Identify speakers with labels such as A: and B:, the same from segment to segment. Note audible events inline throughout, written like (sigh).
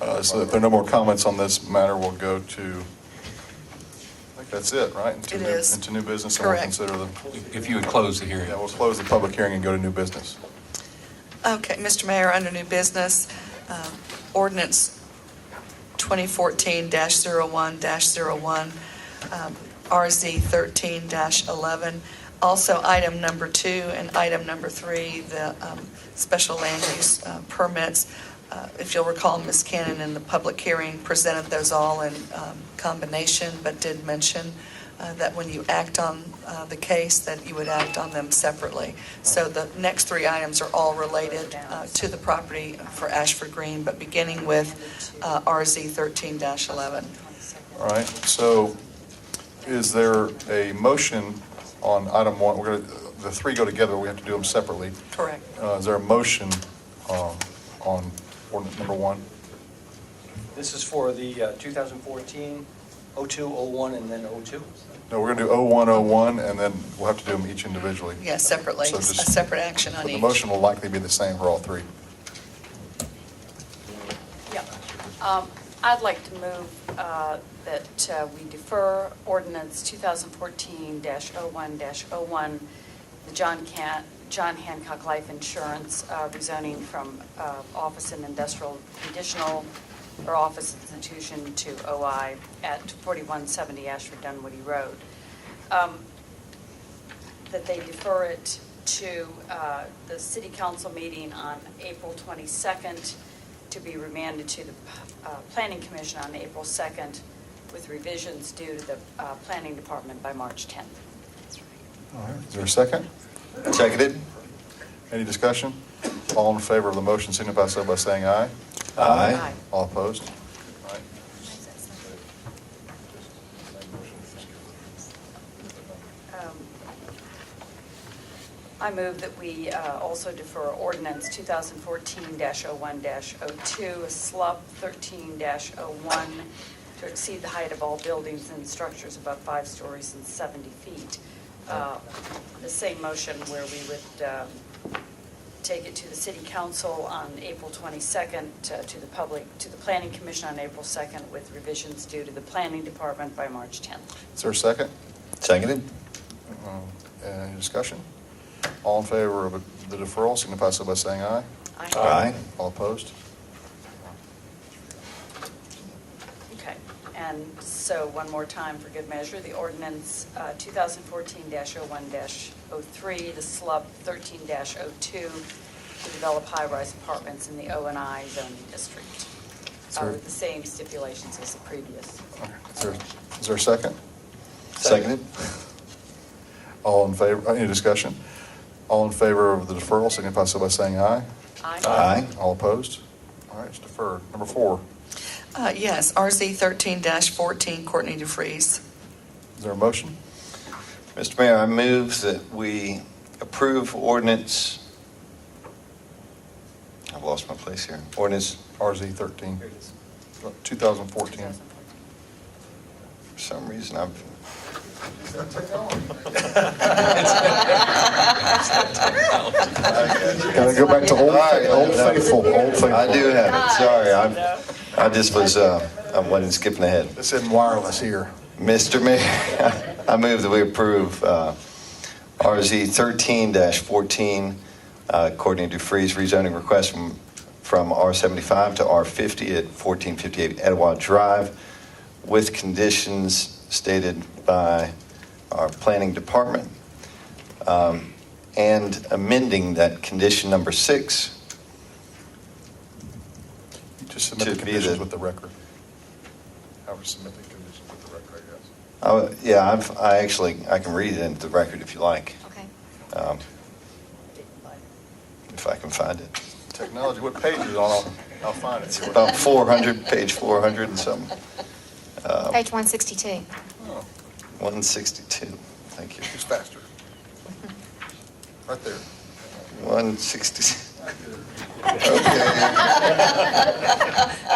A: Uh, So if there are no more comments on this matter, we'll go to, I think that's it, right? Into
B: It
A: new-
B: is.
A: Into new business, and we'll
B: Correct.
A: consider the,
C: If you would close the hearing.
A: yeah, we'll close the public hearing and go to new business.
B: Okay, Mr. Mayor, under new business, uh, ordinance 2014-01-01, um, RZ 13-11, also item number two and item number three, the um, special land use uh, permits. Uh, If you'll recall, Ms. Cannon in the public hearing presented those all in um, combination, but did mention uh, that when you act on uh, the case, that you would act on them separately. So the next three items are all related uh, to the property for Ashford Green, but beginning with uh, RZ 13-11.
A: All right, so is there a motion on item one? We're going to, the three go together, we have to do them separately.
B: Correct.
A: Uh, Is there a motion um, on ordinance number one?
D: This is for the uh, 2014, 02, 01, and then 02.
A: No, we're going to do 0101, and then we'll have to do them each individually.
B: Yeah, separately,
A: So
B: a
A: just-
B: separate action
A: But
B: on
A: the
B: each.
A: motion will likely be the same for all three.
E: Yeah. Um, I'd like to move uh, that uh, we defer ordinance 2014-01-01, the John Can, John Hancock Life Insurance uh, rezoning from uh, office and industrial conditional or office institution to OI at 4170 Ashford Dunwoody Road. Um, that they defer it to uh, the city council meeting on April 22nd to be remanded to the uh, planning commission on April 2nd with revisions due to the uh, planning department by March 10th.
A: All right, is there a second? Seconded. Any discussion? All in favor of the motion signify so by saying aye.
E: Aye.
A: All opposed? All right.
E: Um, I move that we uh, also defer ordinance 2014-01-02, SLUP 13-01, to exceed the height of all buildings and structures above five stories and 70 feet. Uh, The same motion where we would um, take it to the city council on April 22nd, to to the public, to the planning commission on April 2nd, with revisions due to the planning department by March 10th.
A: Is there a second?
F: Seconded?
A: Um, Any discussion? All in favor of the deferral signify so by saying aye.
F: Aye.
A: All opposed?
E: Okay, and so one more time for good measure, the ordinance uh, 2014-01-03, the SLUB 13-02, to develop high-rise apartments in the O and I zoning district, uh,
A: Sir.
E: with the same stipulations as the
A: Is
E: previous.
A: there- Is there a second?
F: Seconded?
A: (laughs) All in favor, uh, any discussion? All in favor of the deferral signify so by saying aye.
F: Aye.
A: All opposed? All right, it's deferred. Number four,
B: Uh, Yes, RZ 13-14, Courtney
A: is
B: DeFreeze.
A: there a motion?
F: Mr. Mayor, I move that we approve ordinance, I've lost my place here, ordinance,
A: RZ 13,
D: Here it is.
A: 2014.
E: 2014.
F: for some reason, I've,
A: Gotta go back to Old Fa- Old Faithful, Old Faithful.
F: I do have it, sorry,
E: No.
F: I'm, I just was, uh, I wasn't skipping ahead.
A: This isn't wireless here.
F: Mr. Mayor, (laughs) I move that we approve uh, RZ 13-14, uh, Courtney DeFreeze rezoning request from from R75 to R50 at 1458 Etowah Drive with conditions stated by our planning department, Um, and amending that condition number six
A: You Just submit the
F: To be
A: conditions
F: the-
A: with the record. However, submit the conditions with the record, I guess.
F: Oh, Yeah, I've, I actually, I can read it into the record if you like.
E: Okay.
F: Um, If I can find it.
A: Technology, what page is it on? I'll- I'll find it.
F: It's about 400, page 400 and something. Uh,
G: Page 162.
A: Oh,
F: 162, thank you.
A: It's faster. Right there.
F: 160. Okay.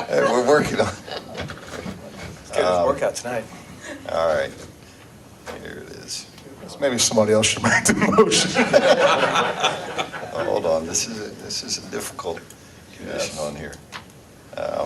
F: Hey, We're working on,
D: Let's get this workout tonight.
F: all right. Here it is.
A: Maybe somebody else should make the motion.
F: (laughs) Hold on, this is, a- this is a difficult condition on here. Uh,